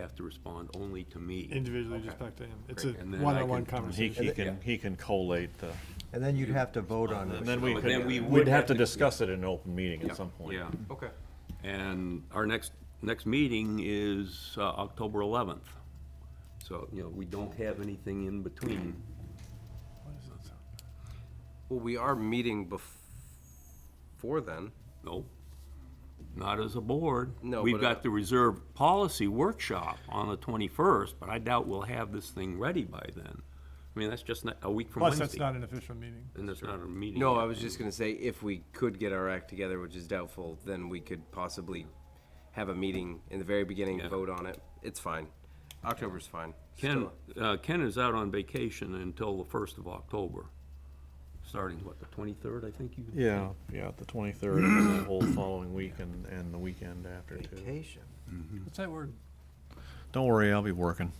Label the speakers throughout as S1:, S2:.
S1: have to respond only to me.
S2: individually just
S1: Okay.
S2: back to him. It's a
S1: Great. And then I
S2: one-on-one
S1: can-
S3: He,
S2: conversation.
S3: he can, he can collate the,
S4: And then you'd have to vote on
S3: and
S4: it.
S3: then we
S1: But then we
S3: could,
S1: would
S3: we'd have
S1: have
S3: to
S1: to-
S3: discuss it in an open meeting
S1: Yeah,
S3: at some point.
S1: Yeah,
S5: Okay.
S1: and our next, next meeting is uh, October 11th. So, you know, we don't have anything in between.
S5: Well, we are meeting before then.
S1: Nope, not as a board.
S5: No,
S1: We've
S5: but, uh,
S1: got the reserve policy workshop on the 21st, but I doubt we'll have this thing ready by then. I mean, that's just not, a week from
S2: Plus,
S1: Wednesday.
S2: that's not an official meeting.
S1: And that's not a meeting.
S5: No,
S1: yet.
S5: I was just gonna say, if we could get our act together, which is doubtful, then we could possibly have a meeting in the very beginning,
S1: Yeah.
S5: vote on it. It's fine. October's fine.
S1: Ken,
S5: Still-
S1: uh, Ken is out on vacation until the first of October, starting, what, the twenty-third, I think you?
S3: Yeah, yeah, the twenty-third, and the whole following week and, and the weekend after too.
S4: Vacation.
S2: What's that word?
S3: Don't worry, I'll be working.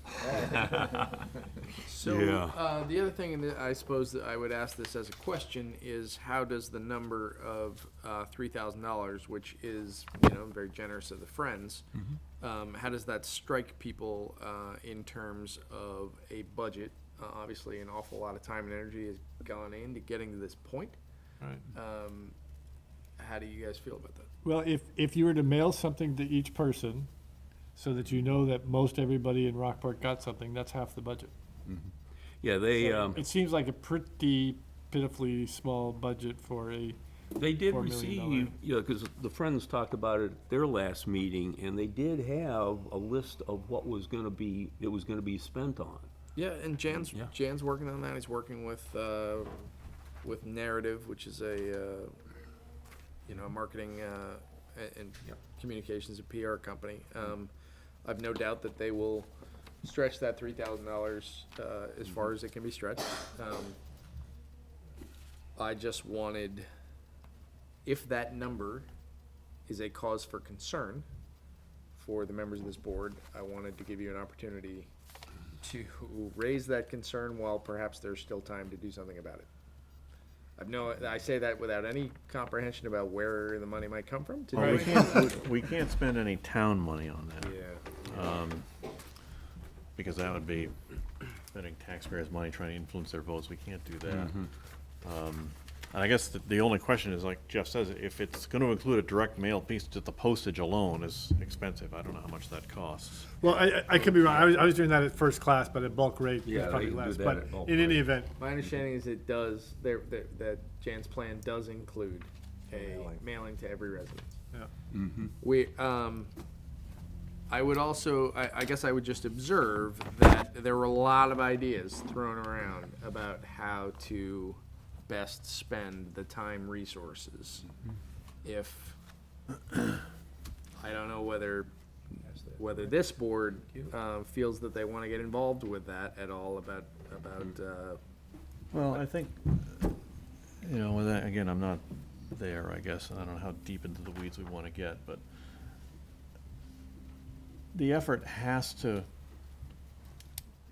S6: So,
S3: Yeah.
S6: uh, the other thing that I suppose that I would ask this as a question is how does the number of, uh, three thousand dollars, which is, you know, very generous of the Friends, um, how does that strike people, uh, in terms of a budget? Uh, obviously, an awful lot of time and energy has gone into getting to this point.
S2: Right.
S6: Um, how do you guys feel about that?
S2: Well, if, if you were to mail something to each person, so that you know that most everybody in Rockport got something, that's half the budget.
S1: Yeah, they, um,
S2: It seems like a pretty pitifully small budget for a,
S1: they did
S2: $4 million dollar-
S1: receive, you know, because the Friends talked about it at their last meeting, and they did have a list of what was gonna be, it was gonna be spent on.
S6: Yeah, and Jan's
S1: Yeah.
S6: Jan's working on that. He's working with uh, with narrative, which is a uh, you know a marketing uh, a- and communications and PR company. Um, I've no doubt that they will stretch that three thousand dollars uh, as far as it can be stretched. Um, I just wanted, if that number is a cause for concern for the members of this board, I wanted to give you an opportunity to raise that concern while perhaps there's still time to do something about it. I've no, I say that without any comprehension about where the money might come from. to do
S3: Well, we
S6: it.
S3: can't, we- we can't spend any town money on that,
S6: Yeah.
S3: because that would be spending taxpayers' money trying to influence their votes, we can't do that. Um, And I guess the, the only question is, like Jeff says, if it's gonna include a direct mail piece, just the postage alone is expensive, I don't know how much that costs.
S2: well, I, I- I could be wrong, I was, I was doing that at first class, but at bulk rate,
S1: Yeah,
S2: it's probably
S1: they do
S2: less,
S1: that
S2: but
S1: at bulk
S2: in any
S1: rate.
S2: event,
S6: My understanding is it does, there, that, that Jan's plan does include a mailing to every resident.
S2: Yeah.
S6: We, um, I would also, I, I guess I would just observe that there were a lot of ideas thrown around about how to best spend the time resources. If, I don't know whether, whether this board, um, feels that they wanna get involved with that at all about, about, uh,
S3: Well, I think, you know, with that, again, I'm not there, I guess, and I don't know how deep into the weeds we want to get, but the effort has to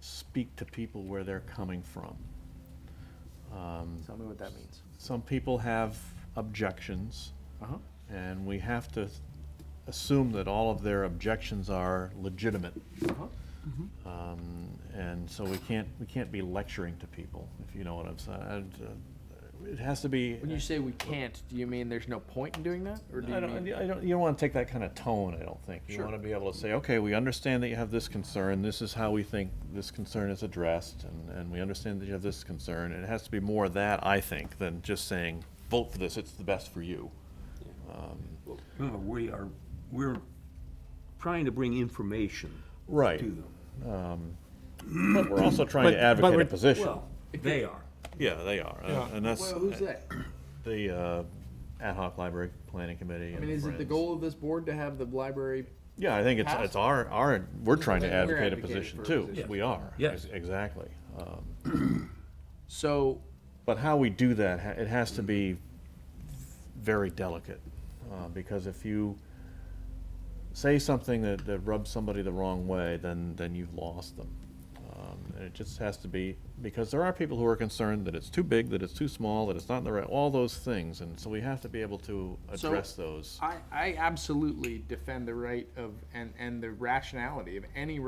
S3: speak to people where they're coming from. Um,
S6: Tell me what that means. Uh-huh.
S3: Some people have objections, and we have to assume that all of their objections are legitimate. Um, And so we can't, we can't be lecturing to people, if you know what I'm saying. And, uh, It has to be.
S6: When you say we can't, do you mean there's no point in doing that, or do
S3: I
S6: you
S3: don't,
S6: mean?
S3: I don't, you don't want to take that kind of tone, I don't think. You want to be able to say, okay, we understand that you have this concern, this is how we think this concern is addressed, and, and we understand that you have this concern. And it has to be more of that, I think, than just saying, vote for this, it's the best for you.
S1: Remember, we are, we're trying to bring information to
S3: Right.
S1: them.
S3: But we're also trying
S2: But-
S3: to
S2: but
S3: advocate a
S2: we're-
S3: position.
S1: Well, they are.
S3: Yeah, they are, and- and that's
S6: Well, who's that?
S3: the uh, ad hoc library planning committee
S6: I
S3: and
S6: mean, is it the
S3: Friends.
S6: goal of this board to have the library?
S3: Yeah, I think it's,
S6: Pass?
S3: it's our, our, we're trying to
S6: We're
S3: advocate a
S6: advocating for
S3: position
S6: a
S3: too.
S6: position.
S3: We are.
S1: Yes.
S3: ex- Exactly.
S6: So,
S3: But how we do that, ha- it has to be very delicate, uh, because if you say something that, that rubs somebody the wrong way, then, then you've lost them. Uh, Um, and it just has to be, because there are people who are concerned that it's too big, that it's too small, that it's not in the right, all those things. And so we have to be able to
S6: So-
S3: address those.
S6: I, I absolutely defend the right of, and, and the rationality of any